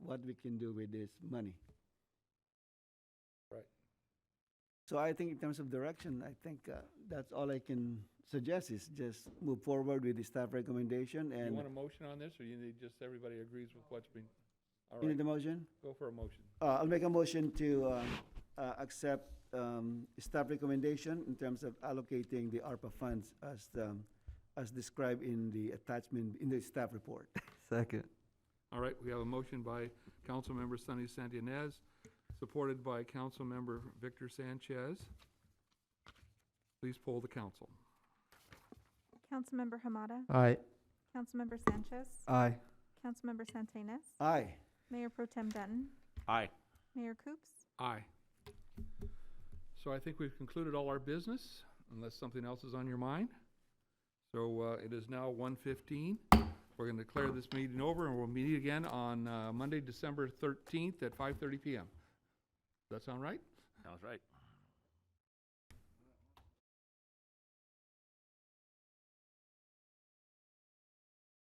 what we can do with this money. Right. So I think in terms of direction, I think uh, that's all I can suggest is just move forward with the staff recommendation You and, want a motion on this, or you need just everybody agrees with what's been? All you right, need a motion? go for a motion. Uh, I'll make a motion to, uh, uh, accept, um, staff recommendation in terms of allocating the ARPA funds as, um, as described in the attachment, in the staff report. Second. All right, we have a motion by Councilmember Sunny Santinez, supported by Councilmember Victor Sanchez. Please poll the council. Councilmember Hamada, Aye. Councilmember Sanchez, Aye. Councilmember Santinas, Aye. Mayor Pro Tem Denton, Aye. Mayor Coops. Aye. So I think we've concluded all our business, unless something else is on your mind. So uh, it is now 1:15. We're going to declare this meeting over, and we'll meet again on uh, Monday, December 13th at 5:30 PM. Does that sound right? Sounds right.